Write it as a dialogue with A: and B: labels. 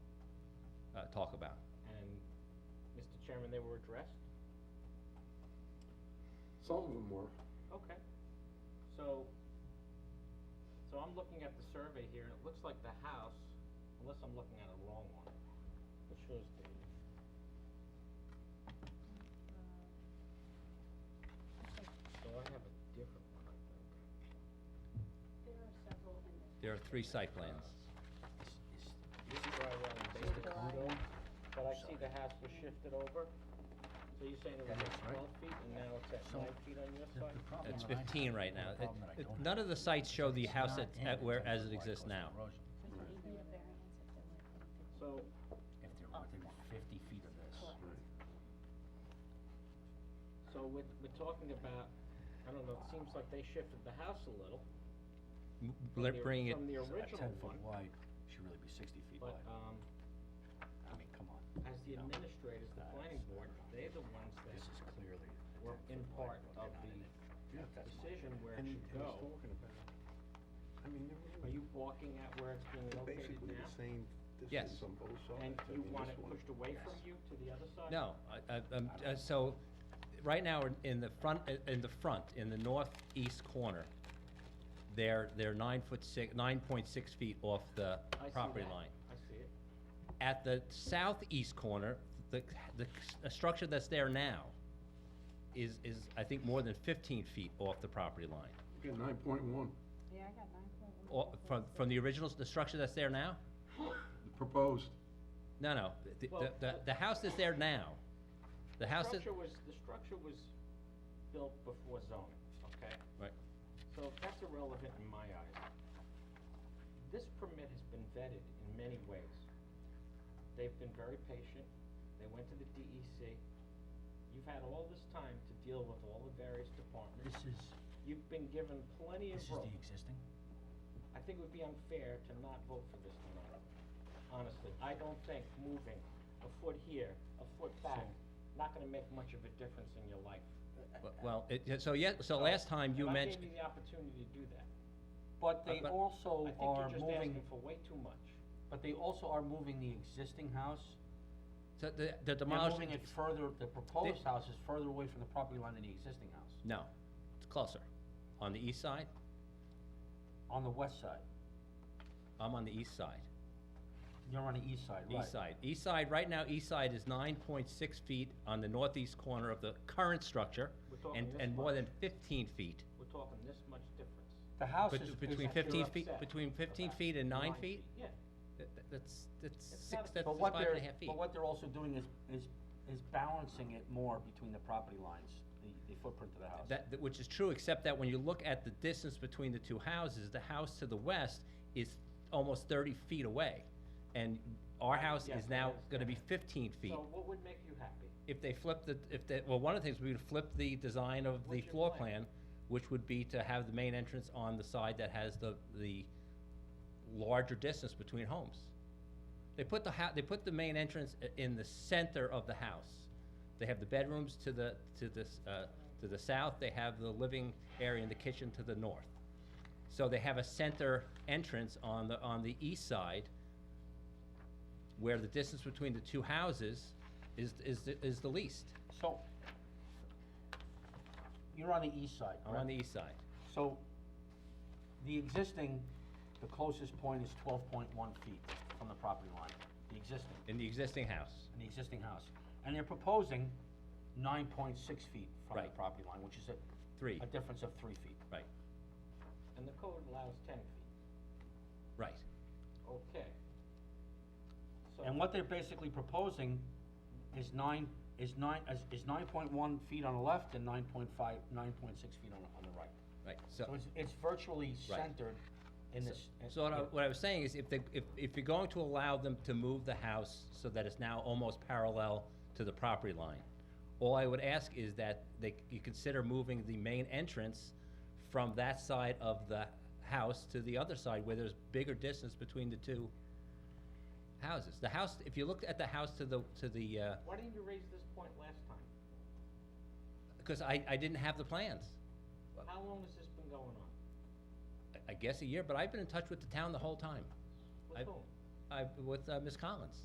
A: uh, talk about.
B: And, Mr. Chairman, they were addressed?
C: Some of them were.
B: Okay. So, so I'm looking at the survey here, and it looks like the house, unless I'm looking at a wrong one, it shows the, so I have a different one, I think.
D: There are several in this.
A: There are three site plans.
B: Is- is- This is where I want to base the condo, but I see the house was shifted over. So you're saying it was at twelve feet, and now it's at nine feet on your side?
A: It's fifteen right now. It- it- None of the sites show the house at, at where, as it exists now.
D: We could even a variance if there were.
B: So,
E: If they're within fifty feet of
B: Oh.
E: this.
B: So we're, we're talking about, I don't know, it seems like they shifted the house a little.
A: M-
B: from
A: let-
B: the-
A: Bring it,
B: From the
E: So at
B: original
E: ten
B: one,
E: feet wide, should really be sixty feet
B: but, uh,
E: wide.
B: um,
E: I mean, come on,
B: as the
E: No.
B: administrators, the planning board, they're the ones that
E: this is clearly. a
B: were
E: 10
B: in
E: foot wide
B: part
E: road, they're not
B: of
E: in
B: the
E: it. Yeah, that's my
B: decision
E: opinion.
B: where it
C: And
B: should
C: and he's
B: go.
C: talking about, I mean, they're
B: Are
C: really
B: you balking at where it's being located
C: basically the
B: now?
C: same
A: Yes.
C: distance on both sides.
B: And
C: I
B: you
C: mean,
B: want
C: this
B: it
C: one-
B: pushed away from you to the other side?
A: no, I, I, um, uh, so, right now, in- in the front, uh, in the front, in the northeast corner, they're, they're nine foot six, nine point six feet off the
B: I see
A: property
B: that.
A: line.
B: I see it.
A: At the southeast corner, the, the, the structure that's there now is, is, I think, more than fifteen feet off the property line.
C: Yeah, nine point one,
D: Yeah, I got nine point one.
A: Or, from, from the original, the structure that's there now?
C: proposed.
A: No, no, the,
B: Well,
A: the- the, the house that's there now, the house that,
B: Structure was, the structure was built before zoning, okay?
A: right,
B: So that's irrelevant in my eyes. This permit has been vetted in many ways. They've been very patient, they went to the DEC. You've had all this time to deal with all the various
E: This
B: departments.
E: is,
B: You've been given plenty of
E: this is
B: rope.
E: the existing?
B: I think it would be unfair to not vote for this tonight, honestly. I don't think moving a foot here, a foot back, not gonna make much of a difference in your life.
A: Well, well, it, so yet, so last time you
B: And I
A: mentioned,
B: gave you the opportunity to do that.
F: But they
A: Uh, but-
F: also
B: I think
F: are
B: you're just
F: moving,
B: asking for way too much.
F: but they also are moving the existing house.
A: so the, the
F: They're
A: demolition,
F: moving it further, the proposed house is further away from the property line than the existing house,
A: no, it's closer. On the east side,
F: on the west side.
A: I'm on the east side,
F: You're on the east side, right?
A: east side. East side, right now, east side is nine point six feet on the northeast corner of the current structure,
B: We're talking
A: and,
B: this
A: and more
B: much.
A: than fifteen feet.
B: We're talking this much difference.
F: The house
A: Bet-
F: is,
A: Between
F: is,
B: That you're
A: fifteen feet,
B: upset
A: between fifteen
B: about.
A: feet and nine feet,
B: Yeah,
A: that, that- that's, that's
B: It's not
A: six,
B: a-
A: that's
F: but
A: that's
F: what
A: five
F: they're,
A: and a half feet.
F: but what they're also doing is, is, is balancing it more between the property lines, the, the footprint of the house.
A: That, that- which is true, except that when you look at the distance between the two houses, the house to the west is almost thirty feet away. And our house
B: Yes,
A: is
B: I
A: now gonna be
B: understand.
A: fifteen feet.
B: so what would make you happy?
A: If they flip the, if they, well, one of the things, we would flip the design of the
B: What's your
A: floor
B: plan?
A: plan, which would be to have the main entrance on the side that has the, the larger distance between homes. They put the hou- they put the main entrance i- in the center of the house. They have the bedrooms to the, to this, uh, to the south, they have the living area and the kitchen to the north. So they have a center entrance on the, on the east side, where the distance between the two houses is, is, the- is the least.
F: So, you're on the east side,
A: I'm on
F: correct?
A: the east side.
F: So, the existing, the closest point is twelve point one feet from the property line, the existing,
A: in the existing house.
F: in the existing house. And they're proposing nine point six feet from the
A: Right.
F: property line, which is a.
A: Three.
F: A difference of three feet.
A: Right,
B: And the code allows ten feet,
A: right.
B: okay. So,
F: And what they're basically proposing is nine, is nine, is, is nine point one feet on the left and nine point five, nine point six feet on, the- on the right.
A: Right,
F: So
A: so,
F: it's, it's virtually centered in this. uh,
A: so what I, what I was saying is if they, if, if you're going to allow them to move the house so that it's now almost parallel to the property line, all I would ask is that they, you consider moving the main entrance from that side of the house to the other side where there's bigger distance between the two houses. The house, if you look at the house to the, to the, uh,
B: why didn't you raise this point last time?
A: because I, I didn't have the plans.
B: How long has this been going on?
A: I- I guess a year, but I've been in touch with the town the whole time.
B: With
A: I-
B: whom?
A: I, with, uh, Ms. Collins.